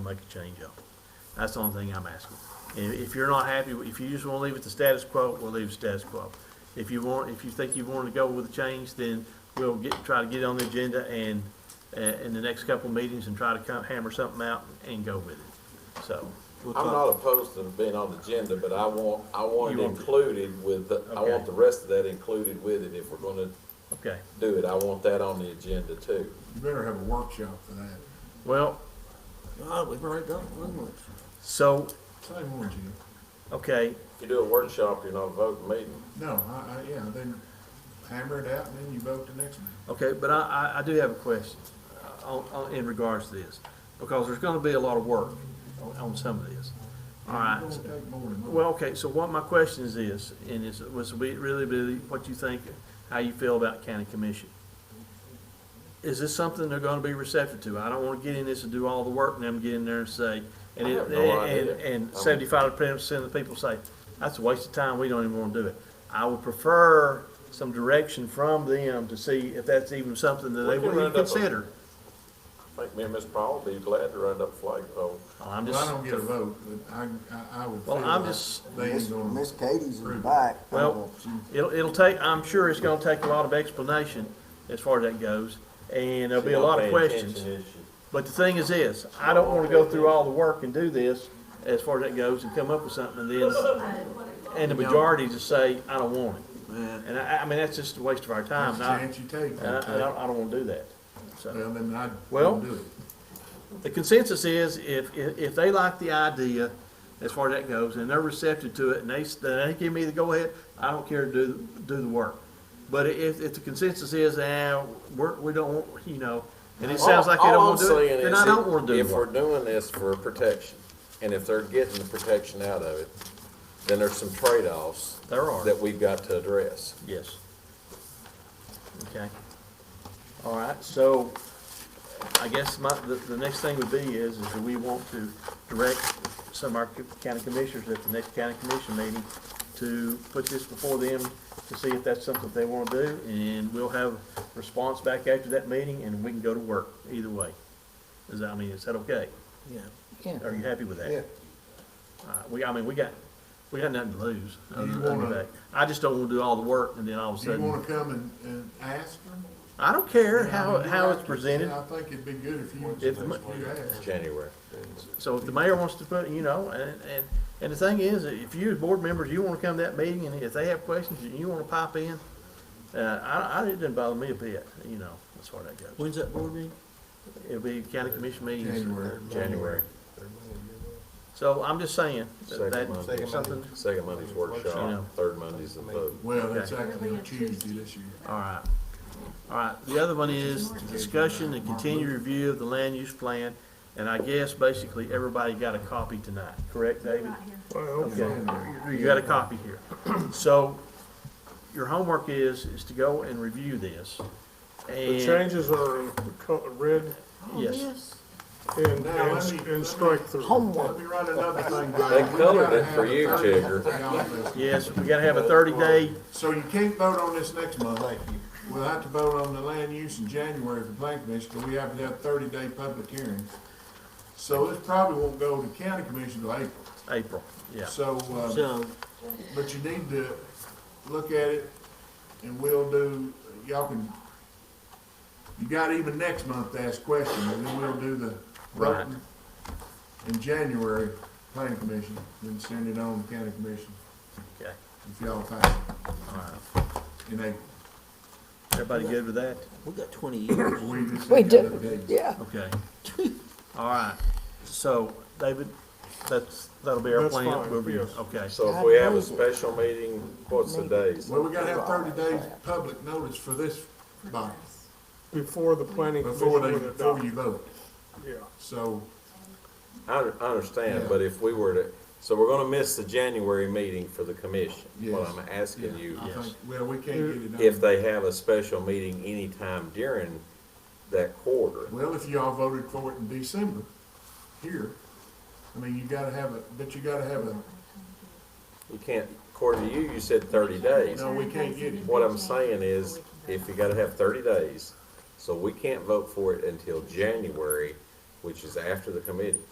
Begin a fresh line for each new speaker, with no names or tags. make a change of. That's the only thing I'm asking. If, if you're not happy, if you just wanna leave it the status quo, we'll leave it status quo. If you want, if you think you wanna go with a change, then we'll get, try to get it on the agenda and, uh, in the next couple of meetings and try to come hammer something out and go with it, so. we'll
I'm
talk-
not opposed to being on the agenda, but I want, I want
You
it
want it.
included with, the- I
Okay.
want the rest of that included with it if we're gonna
Okay,
do it. I want that on the agenda too.
You better have a workshop for that.
well,
God, we've already done one month.
so,
Same one, Jim.
okay,
If you do a workshop, you're not voting meeting.
No, I, I, yeah, then hammer it out and then you vote the next meeting.
Okay, but I, I, I do have a question uh, on, on, in regards to this, because there's gonna be a lot of work on, on some of this. All right,
It's gonna take more than one.
well, okay, so what my question is this, and it's, was we- really, really what you think, how you feel about county commission. Is this something they're gonna be receptive to? I don't wanna get in this and do all the work and them get in there and say, and
I
it,
have no
and,
idea.
and seventy-five percent of the people say, that's a waste of time, we don't even wanna do it. I would prefer some direction from them to see if that's even something that
We
they
can
would
round
even
up a-
consider.
I think me and Miss Paul would be glad to run up a flagpole.
Well, I'm
Well, I don't get a
just,
vote, but I, I, I would feel
Well, I'm
like
just-
they ain't gonna.
Miss Katie's in the
approve it.
back. I
Well-
don't know if she-
it'll, it'll take, I'm sure it's gonna take a lot of explanation as far as that goes, and there'll be a lot of questions. But the thing is this, I don't wanna go through all the work and do this, as far as that goes, and come up with something and then, and the majority just say, I don't want it. And I, I mean, that's just a waste of our time, and
That's the
I,
chance you take.
and I, I don't, I don't wanna do that. So,
Well, then I'd
Uh, Well-
do it.
the consensus is, if, if, if they like the idea, as far as that goes, and they're receptive to it, and they, s- then they give me the go-ahead, I don't care to do, do the work. But if, if the consensus is, eh, we're, we don't, want you know, and it sounds like they
All- all
don't
I'm
wanna do
saying
it, then
is
I don't
if-
wanna do
If
the
we're
work.
doing this for protection, and if they're getting the protection out of it, then there's some trade-offs
There are.
that we've got to address.
Yes. Okay. All right, so I guess my, the, the next thing would be is, is do we want to direct some of our county commissioners at the next county commission meeting to put this before them to see if that's something they wanna do, and we'll have response back after that meeting, and we can go to work, either way. Is that, I mean, is that okay?
Yeah. Yeah.
Are you happy with that?
Yeah.
Uh, we, I mean, we got, we got nothing to lose.
Do
other
you
than
wanna-
that. I just don't wanna do all the work, and then all of a
Do you
sudden.
wanna come and, and ask them?
I don't care how,
Yeah,
how
I
it's
think-
presented,
I think it'd be good if you,
If
if
mu-
you asked.
January.
so if the mayor wants to put, you know, and, and, and the thing is, if you as board members, you wanna come to that meeting, and if they have questions, and you wanna pop in, uh, I, I, it didn't bother me a bit, you know, as far as that goes.
When's that board meeting?
It'll be county commission meetings,
January.
January.
so I'm just saying, that,
Second Monday.
that, something,
Second Monday's workshop, third Monday's the vote.
Well, that's
Okay.
actually on Tuesday this year.
all right. All right, the other one is discussion and continued review of the land use plan, and I guess basically everybody got a copy tonight, correct, David? Okay, you got a copy here. So, your homework is, is to go and review this,
The
and,
changes are in co- red
yes,
and,
Now, let
and,
me-
and strike through.
Let me write another thing down.
They
We
colored
gotta
it for
have
you,
a
Jigger.
30
yes, we gotta have a thirty-day,
So you can't vote on this next month. We'll have to vote on the land use in January for plan commission, but we have to have thirty day public hearings. So this probably won't go to county commission till April.
April, yeah.
So, uh,
So,
but you need to look at it and we'll do, y'all can, you got even next month to ask questions and then we'll do the
Right.
voting in January, plan commission, then send it on to county commission
Okay,
if y'all pass it
all right.
in April.
Everybody good with that?
we got twenty years.
We just
We
ain't got enough
do,
days.
yeah.
Okay. All right, so, David, that's, that'll be our
That's
plan.
fine,
We'll be-
yes.
Okay,
So if we have a special meeting, what's the days?
Well, we gotta have thirty days public notice for this body,
Before the planning commission
before they,
would
before
adopt,
you vote,
yeah.
so,
I, I understand, but if we were to, so we're gonna miss the January meeting for the commission. What
Yes.
I'm
yeah,
asking you,
I
Yes.
think, well, we can't get it
if
done.
they have a special meeting anytime during that quarter.
Well, if y'all voted for it in December, here, I mean, you gotta have a, but you gotta have a,
You can't, according to you, you said thirty days.
no, we can't get it.
What I'm saying is, if you gotta have thirty days, so we can't vote for it until January, which is after the committee,